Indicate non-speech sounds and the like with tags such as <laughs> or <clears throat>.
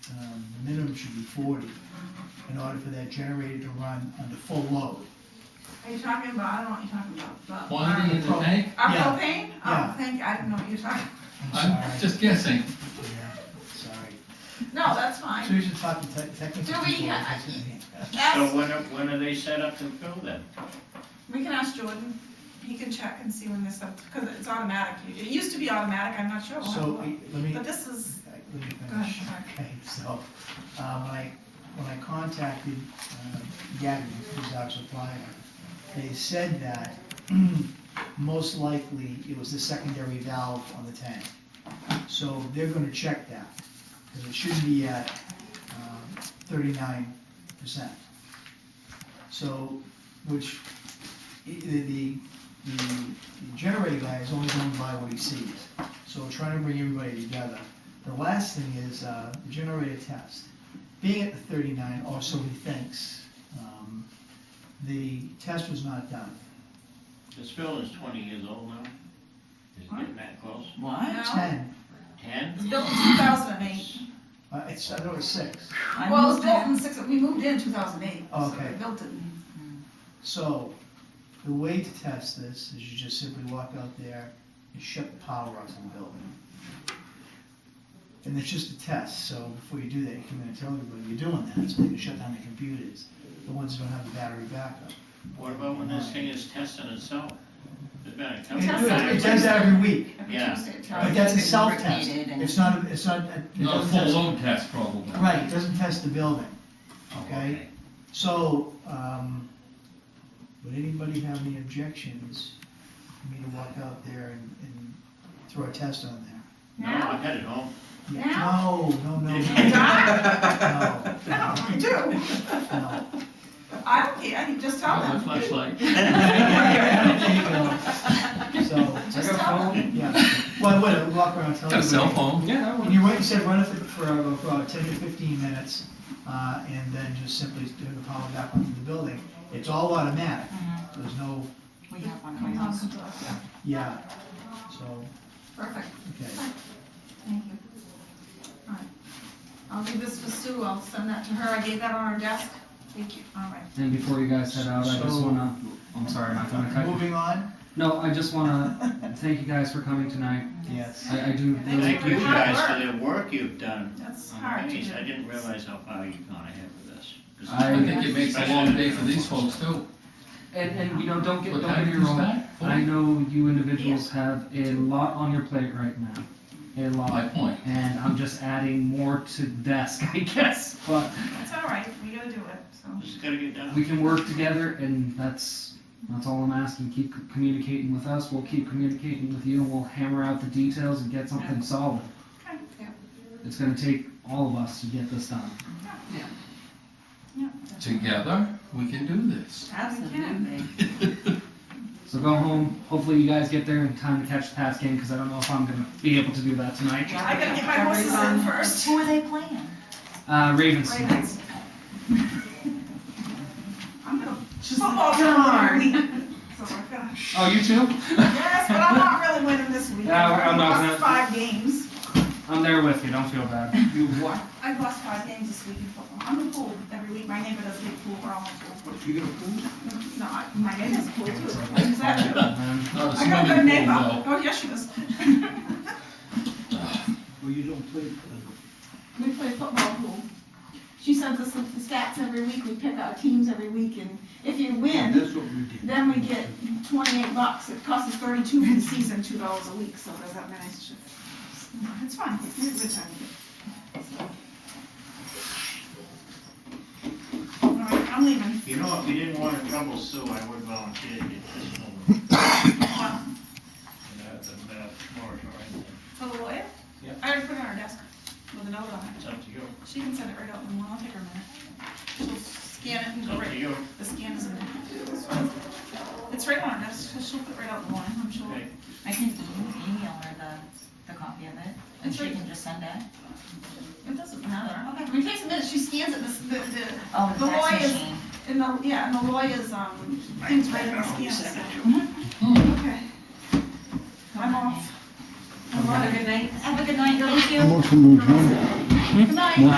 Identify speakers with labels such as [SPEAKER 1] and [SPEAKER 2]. [SPEAKER 1] system um, should be forty in order for that generator to run under full load.
[SPEAKER 2] Are you talking about, I don't know what you're talking about, but. um,
[SPEAKER 3] Quantity in the
[SPEAKER 1] Pro-
[SPEAKER 3] tank?
[SPEAKER 2] Our
[SPEAKER 1] Yeah.
[SPEAKER 2] propane?
[SPEAKER 1] Yeah.
[SPEAKER 2] Oh, thank, you. I didn't know what you're talking,
[SPEAKER 3] I'm
[SPEAKER 1] I'm sorry,
[SPEAKER 3] just guessing.
[SPEAKER 1] yeah, sorry.
[SPEAKER 2] <laughs> no, that's
[SPEAKER 1] So
[SPEAKER 2] fine.
[SPEAKER 1] we should talk to te- technical
[SPEAKER 2] Do we
[SPEAKER 1] people.
[SPEAKER 2] ha-
[SPEAKER 4] So
[SPEAKER 2] Ask,
[SPEAKER 4] when are, when are they set up to fill then?
[SPEAKER 2] we can ask Jordan, he can check and see when this up, because it's automatic, it used to be automatic, I'm not sure. We'll have
[SPEAKER 1] So,
[SPEAKER 2] to look.
[SPEAKER 1] we- let me,
[SPEAKER 2] But this is,
[SPEAKER 1] I- let me
[SPEAKER 2] Go ahead,
[SPEAKER 1] finish.
[SPEAKER 2] sorry.
[SPEAKER 1] Okay, so, uh, when I, when I contacted uh, Gavin, who's our supplier, they said that <clears throat> most likely it was the secondary valve on the tank. So they're gonna check that, because it should be at uh, thirty-nine percent. So, which, i- the, the, the generator guy is only going by what he sees. So we're trying to bring everybody together. The last thing is uh, the generator test. Being at the 39, or so he thinks, um, the test was not done.
[SPEAKER 4] This building's twenty years old now. Is it getting that close?
[SPEAKER 5] What?
[SPEAKER 2] No.
[SPEAKER 1] 10,
[SPEAKER 4] Ten?
[SPEAKER 2] it's built in two thousand and eight.
[SPEAKER 1] uh, it's, I thought it was 6.
[SPEAKER 5] I
[SPEAKER 2] Well, it was
[SPEAKER 5] moved
[SPEAKER 2] built
[SPEAKER 5] in.
[SPEAKER 2] in six, we moved in two thousand and eight.
[SPEAKER 1] Okay.
[SPEAKER 2] Built
[SPEAKER 1] <laughs>
[SPEAKER 2] it in
[SPEAKER 1] So the way to test this is you just simply walk out there and shut the power off in the building. And it's just a test, so before you do that, you come in and tell everybody you're doing that, so they can shut down the computers, the ones that don't have the battery backup.
[SPEAKER 4] What about when this thing is testing itself? There's been a
[SPEAKER 1] And
[SPEAKER 4] couple
[SPEAKER 1] It
[SPEAKER 2] Test
[SPEAKER 1] do it- it
[SPEAKER 4] times.
[SPEAKER 1] does that every week.
[SPEAKER 2] every
[SPEAKER 4] Yeah.
[SPEAKER 2] Tuesday at
[SPEAKER 1] But
[SPEAKER 2] twelve.
[SPEAKER 1] that's a
[SPEAKER 5] It's
[SPEAKER 1] self-test,
[SPEAKER 5] repeated and-
[SPEAKER 1] it's not, a- it's not, a- it
[SPEAKER 3] Not a
[SPEAKER 1] doesn't
[SPEAKER 3] full
[SPEAKER 1] test,
[SPEAKER 3] load test probably.
[SPEAKER 1] right, it doesn't test the building.
[SPEAKER 4] Oh,
[SPEAKER 1] okay. So, um, would anybody have any objections for me to walk out there and, and throw a test on there?
[SPEAKER 4] No,
[SPEAKER 2] Now?
[SPEAKER 4] I
[SPEAKER 2] <laughs>
[SPEAKER 4] headed home.
[SPEAKER 1] Yeah,
[SPEAKER 2] Now?
[SPEAKER 1] No, no, no.
[SPEAKER 3] <laughs>
[SPEAKER 2] No, I
[SPEAKER 1] No,
[SPEAKER 2] do.
[SPEAKER 1] no,
[SPEAKER 2] I don't care, I can just tell
[SPEAKER 3] Not a
[SPEAKER 2] them. <laughs>
[SPEAKER 1] <laughs>
[SPEAKER 3] flashlight.
[SPEAKER 1] no. So,
[SPEAKER 2] Just tell them.
[SPEAKER 1] yeah, well, I would, I'd walk around, and tell
[SPEAKER 3] Got a cell
[SPEAKER 1] everybody.
[SPEAKER 3] phone. Yeah,
[SPEAKER 1] And you're right, you said run it for, for uh, for about ten to fifteen minutes, uh, and then just simply do the power back onto the building. It's all automatic, there's no,
[SPEAKER 5] We have one
[SPEAKER 2] I'll
[SPEAKER 5] right now.
[SPEAKER 6] Oh,
[SPEAKER 2] come to us, yeah.
[SPEAKER 1] yeah, so,
[SPEAKER 2] Perfect,
[SPEAKER 1] okay.
[SPEAKER 2] thank you. All right. I'll leave this for Sue, I'll send that to her, I gave that on her desk. Thank you, all right.
[SPEAKER 7] And before you guys head out, I just
[SPEAKER 1] So-
[SPEAKER 7] wanna, I'm sorry, I'm not gonna cut you.
[SPEAKER 1] Moving on?
[SPEAKER 7] No, I just
[SPEAKER 8] Uh,
[SPEAKER 7] wanna thank you guys for coming tonight.
[SPEAKER 1] <laughs> Yes.
[SPEAKER 7] I, I do
[SPEAKER 2] Thank
[SPEAKER 7] really
[SPEAKER 2] you
[SPEAKER 4] Thank
[SPEAKER 2] for
[SPEAKER 4] you
[SPEAKER 2] your hard
[SPEAKER 7] appreciate
[SPEAKER 4] guys for
[SPEAKER 2] work.
[SPEAKER 4] the work you've done.
[SPEAKER 2] That's hard to
[SPEAKER 4] Amazing. I
[SPEAKER 2] do.
[SPEAKER 4] didn't realize how far you've gone ahead with this. 'Cause
[SPEAKER 7] I-
[SPEAKER 3] I think it makes a long day for these folks too.
[SPEAKER 7] And, and, you know, don't get,
[SPEAKER 3] What
[SPEAKER 7] don't
[SPEAKER 3] time
[SPEAKER 7] get
[SPEAKER 3] do
[SPEAKER 7] me
[SPEAKER 3] you
[SPEAKER 7] wrong.
[SPEAKER 3] start? Four?
[SPEAKER 7] I know you individuals have a lot on your plate right now, a
[SPEAKER 3] My
[SPEAKER 7] lot.
[SPEAKER 3] point.
[SPEAKER 7] And I'm just adding more to the desk, <laughs> I guess, but
[SPEAKER 2] It's all right, we gotta do it, so.
[SPEAKER 4] This is gonna get done.
[SPEAKER 7] we can work together and that's, that's all I'm asking. Keep c- communicating with us, we'll keep communicating with you and we'll hammer out the details and get something solid.
[SPEAKER 2] Okay, yeah,
[SPEAKER 7] It's gonna take all of us to get this done.
[SPEAKER 2] yeah.
[SPEAKER 3] Together, we can do this. <laughs>
[SPEAKER 5] Absolutely.
[SPEAKER 7] So go home. Hopefully you guys get there in time to catch the pass game because I don't know if I'm gonna be able to do that tonight.
[SPEAKER 5] Yeah.
[SPEAKER 2] I gotta get my horses in first.
[SPEAKER 5] Who are they playing?
[SPEAKER 7] Uh, Ravens.
[SPEAKER 2] Ravens. I'm gonna,
[SPEAKER 5] Just
[SPEAKER 2] football
[SPEAKER 6] Oh,
[SPEAKER 5] darn.
[SPEAKER 2] week, so we're gonna.
[SPEAKER 7] Oh, you too?
[SPEAKER 2] Yes, but I'm not really winning this week.
[SPEAKER 7] No, I'm
[SPEAKER 2] I've
[SPEAKER 7] not
[SPEAKER 2] lost
[SPEAKER 7] gonna-
[SPEAKER 2] five games.
[SPEAKER 7] I'm there with you. Don't feel bad.
[SPEAKER 8] You what?
[SPEAKER 2] I've lost five games this week in football. I'm in pool every week. My neighbor does get pool. We're all in pool.
[SPEAKER 8] You gonna prove?
[SPEAKER 2] No, I- my neighbor's pool too. Is that true?
[SPEAKER 7] Um,
[SPEAKER 3] Not a
[SPEAKER 2] I got a good
[SPEAKER 3] swimming
[SPEAKER 2] neighbor.
[SPEAKER 3] pool
[SPEAKER 2] Oh, yes, she <laughs> does.
[SPEAKER 8] Well, you don't play.
[SPEAKER 6] We play football pool. She sends us the stats every week, we pick out teams every week, and if you win,
[SPEAKER 8] That's what we did.
[SPEAKER 6] then we get twenty-eight bucks, it costs us thirty-two for the season, two dollars a week, so does that mean it's just?
[SPEAKER 2] It's fine. It's a good time. All right, I'm leaving.
[SPEAKER 4] You know, if you didn't want to trouble Sue, I would volunteer to get this over.
[SPEAKER 2] Uh,
[SPEAKER 4] You know, it's a bad moratorium.
[SPEAKER 2] For the lawyer?
[SPEAKER 4] Yeah.
[SPEAKER 2] I already put it on her desk with a note on it.
[SPEAKER 4] It's up to you.
[SPEAKER 2] She can send it right out in the morning. I'll take her a minute. She'll scan it and
[SPEAKER 4] It's
[SPEAKER 2] go
[SPEAKER 4] up
[SPEAKER 2] right.
[SPEAKER 4] to you.
[SPEAKER 2] The scan is in there. It's right on, that's, she'll put it right out in the morning, I'm sure.
[SPEAKER 4] Okay.
[SPEAKER 5] I can e- email her the, the copy of it, and she can just send it.
[SPEAKER 2] It doesn't matter. I mean, it takes a minute, she scans it, this, the, the,
[SPEAKER 5] Oh,
[SPEAKER 2] The
[SPEAKER 5] the
[SPEAKER 2] boy is-
[SPEAKER 5] fax machine.
[SPEAKER 2] and the, yeah, and the lawyer's, um, things right in the scan. so. Mm-hmm. Okay. I'm off.
[SPEAKER 5] Have a good night. Have a good night, thank you.
[SPEAKER 6] Good night.